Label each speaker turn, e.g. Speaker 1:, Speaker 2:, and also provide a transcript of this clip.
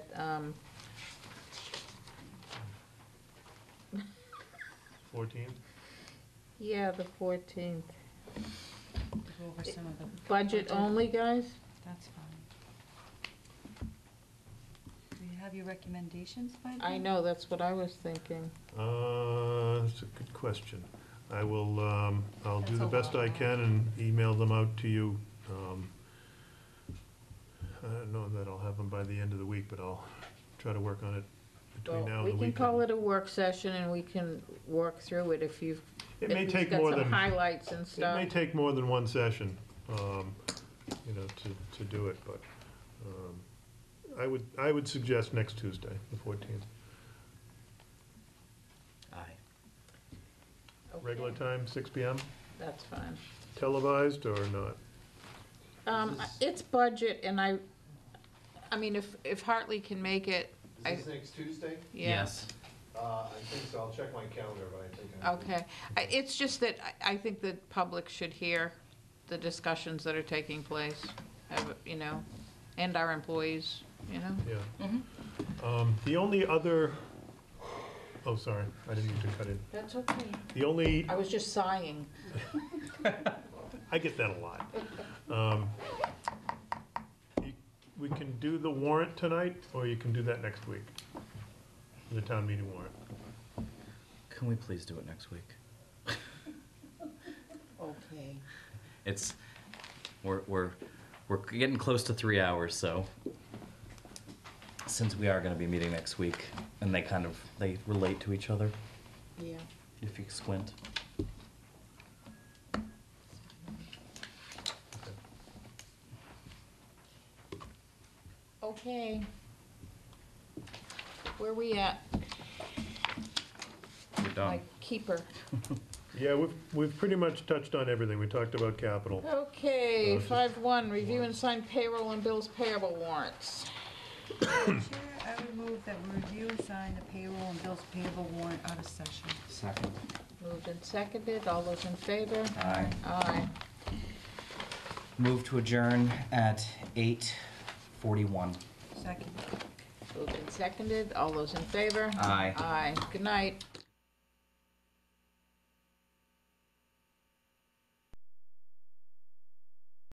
Speaker 1: um,
Speaker 2: Fourteenth?
Speaker 1: yeah, the fourteenth.
Speaker 3: to go over some of the.
Speaker 1: Budget only, guys?
Speaker 3: That's fine. Do you have your recommendations by then?
Speaker 1: I know, that's what I was thinking.
Speaker 2: Uh, that's a good question. I will, um, I'll do
Speaker 3: That's
Speaker 2: the
Speaker 3: a
Speaker 2: best
Speaker 3: lot.
Speaker 2: I can and email them out to you. Um, I don't know that I'll have them by the end of the week, but I'll try to work on it between
Speaker 1: Well,
Speaker 2: now and the weekend.
Speaker 1: We can call it a work session and we can work through it if you've.
Speaker 2: It
Speaker 1: if
Speaker 2: may
Speaker 1: he's
Speaker 2: take
Speaker 1: got
Speaker 2: more
Speaker 1: some
Speaker 2: than, it
Speaker 1: Highlights and
Speaker 2: may
Speaker 1: stuff.
Speaker 2: take more than one session, um, you know, to, to do it, but, um, I would, I would suggest next Tuesday, the fourteenth.
Speaker 4: Aye.
Speaker 1: Okay,
Speaker 2: Regular time, six P M,
Speaker 1: That's fine.
Speaker 2: televised or not?
Speaker 1: Um,
Speaker 4: This is-
Speaker 1: it's budget and I, I mean, if, if Hartley can make it, I-
Speaker 5: Is this next Tuesday?
Speaker 1: yeah.
Speaker 5: Uh, I think so, I'll check my calendar, but I think I.
Speaker 1: Okay, I- it's just that I- I think the public should hear the discussions that are taking place, have- you know, and our employees, you know?
Speaker 2: Yeah. Um, The only other, oh, sorry, I didn't mean to cut in.
Speaker 1: That's okay.
Speaker 2: The only,
Speaker 1: I was just sighing.
Speaker 2: I get that a lot. Um, you- We can do the warrant tonight, or you can do that next week, the town meeting warrant.
Speaker 4: Can we please do it next week?
Speaker 3: Okay.
Speaker 4: It's, we're, we're, we're getting close to three hours, so since we are gonna be meeting next week, and they kind of, they relate to each other,
Speaker 1: Yeah.
Speaker 4: if you squint.
Speaker 1: Okay. Where we at?
Speaker 4: We're done.
Speaker 1: My keeper.
Speaker 2: Yeah, we've, we've pretty much touched on everything. We talked about capital.
Speaker 1: Okay,
Speaker 2: Uh, just-
Speaker 1: five one, review and sign payroll and bills payable warrants.
Speaker 3: Chair, I would move that we review and sign the payroll and bills payable warrant out of session.
Speaker 4: Second.
Speaker 1: Moved and seconded, all those in favor?
Speaker 4: Aye.
Speaker 1: Aye.
Speaker 4: Move to adjourn at eight forty-one.
Speaker 3: Second.
Speaker 1: Moved and seconded, all those in favor?
Speaker 4: Aye.
Speaker 1: Aye, good night.